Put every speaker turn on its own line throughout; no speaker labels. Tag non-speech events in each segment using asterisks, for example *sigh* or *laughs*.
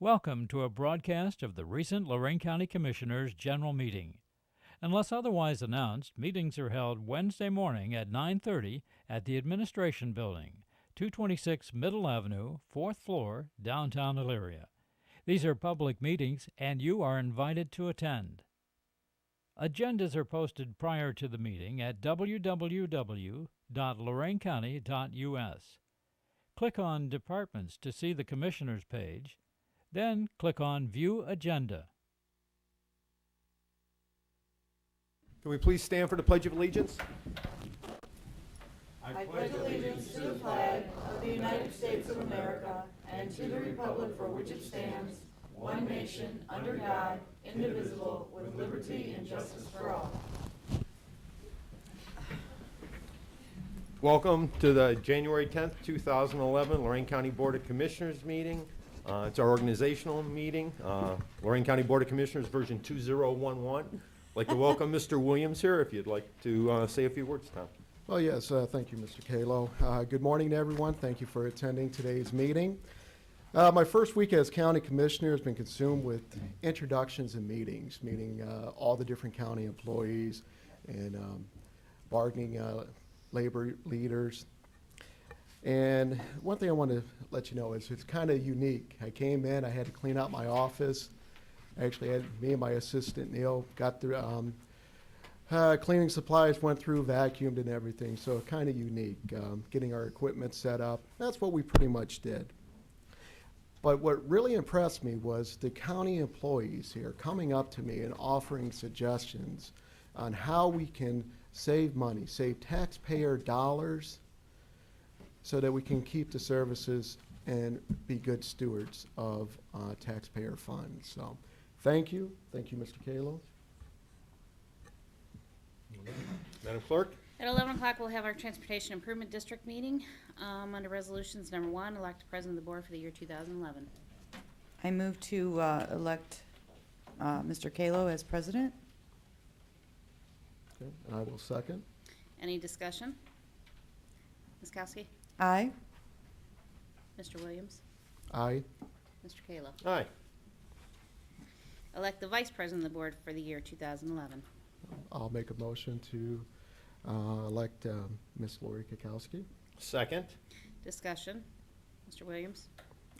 Welcome to a broadcast of the recent Lorraine County Commissioners' General Meeting. Unless otherwise announced, meetings are held Wednesday morning at 9:30 at the Administration Building, 226 Middle Avenue, 4th floor, downtown Elyria. These are public meetings and you are invited to attend. Agendas are posted prior to the meeting at www.loraincounty.us. Click on Departments to see the Commissioners page, then click on View Agenda.
Can we please stand for the Pledge of Allegiance? Welcome to the January 10th, 2011 Lorraine County Board of Commissioners meeting. Uh, It's our organizational meeting, uh, Lorraine County Board of Commissioners, version 2011. I'd Like to welcome Mr. Williams here, if you'd like to uh, say a few words, Tom.
Well, yes, uh, thank you, Mr. Kalo. Uh, Good morning to everyone. Thank you for attending today's meeting. Uh, My first week as county commissioner has been consumed with introductions and meetings, meeting uh, all the different county employees and um, bargaining uh, labor leaders. And one thing I want to let you know is it's kind of unique. I came in, I had to clean out my office. Actually, had me and my assistant Neil got through, um, uh, cleaning supplies went through, vacuumed and everything, so kind of unique. Um, getting our equipment set up, that's what we pretty much did. But what really impressed me was the county employees here coming up to me and offering suggestions on how we can save money, save taxpayer dollars, so that we can keep the services and be good stewards of uh, taxpayer funds. So, thank you. Thank you, Mr. Kalo.
Madam Clerk?
At 11 o'clock, we'll have our Transportation Improvement District meeting. Um, Under Resolutions Number One, elect the President of the Board for the year 2011.
I move to uh, elect uh, Mr. Kalo as president.
Okay, And I will second.
Any discussion? Ms. Kowski?
Aye.
Mr. Williams?
Aye.
Mr. Kayla?
Aye.
Elect the Vice President of the Board for the year 2011.
I'll make a motion to uh, elect um, Ms. Lori Kukowski.
Second?
Discussion? Mr. Williams?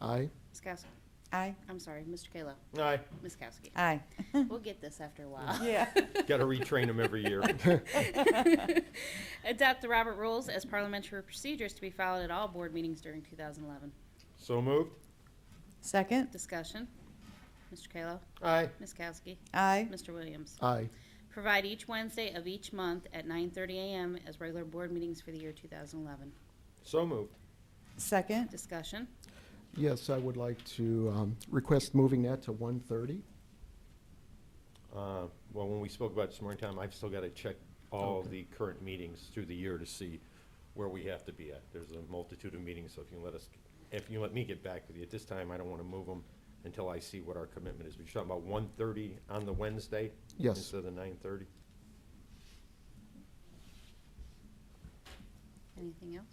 Aye.
Ms. Kowski?
Aye.
I'm sorry, Mr. Kayla?
Aye.
Ms. Kowski?
Aye.
We'll get this after a while.
Yeah.
Got to retrain them every year.
*laughs* Adopt the Robert Rules as parliamentary procedures to be followed at all board meetings during 2011.
So moved?
*laughs* Second.
Discussion? Mr. Kayla?
Aye.
Ms. Kowski?
Aye.
Mr. Williams?
Aye.
Provide each Wednesday of each month at 9:30 a.m. as regular board meetings for the year 2011.
So moved.
Second.
Discussion?
Yes, I would like to um, request moving that to 1:30.
Uh, Well, when we spoke about it this morning, Tom, I've still got to check all of the current meetings through the year to see where we have to be at. There's a multitude of meetings, so if you let us, if you let me get back with you, at this time, I don't want to move them until I see what our commitment is. We're talking about 1:30 on the Wednesday?
Yes.
Instead of the 9:30?
Anything else?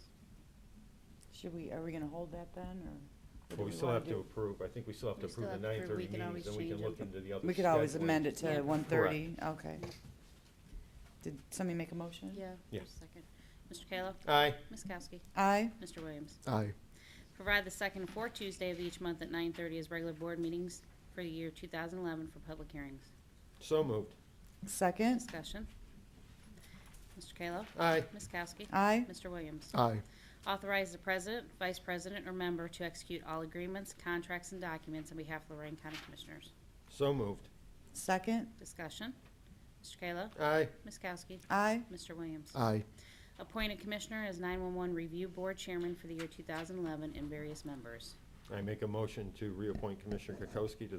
Should we, are we going to hold that then, or? what do
But we still
wanna
have to
do?
approve, I think we still have to
We still
approve the
have to
9:30
approve. We can
meetings,
always
then we can
change 'em.
look into the other.
We could always
scheduling.
amend it to
Yeah.
1:30. Okay. Did somebody make a motion?
Yeah.
Yeah.
just a Second. Mr. Kayla?
Aye.
Ms. Kowski?
Aye.
Mr. Williams?
Aye.
Provide the second and fourth Tuesday of each month at 9:30 as regular board meetings for the year 2011 for public hearings.
So moved.
Second.
Discussion? Mr. Kayla?
Aye.
Ms. Kowski?
Aye.
Mr. Williams?
Aye.
Authorize the president, vice president, or member to execute all agreements, contracts, and documents on behalf of Lorraine County Commissioners.
So moved.
Second.
Discussion. Mr. Kayla.
Aye.
Ms. Kowski.
Aye.
Mr. Williams.
Aye.
Appoint a commissioner as 911 Review Board Chairman for the year 2011 and various members.
I make a motion to reappoint Commissioner Kokoski to the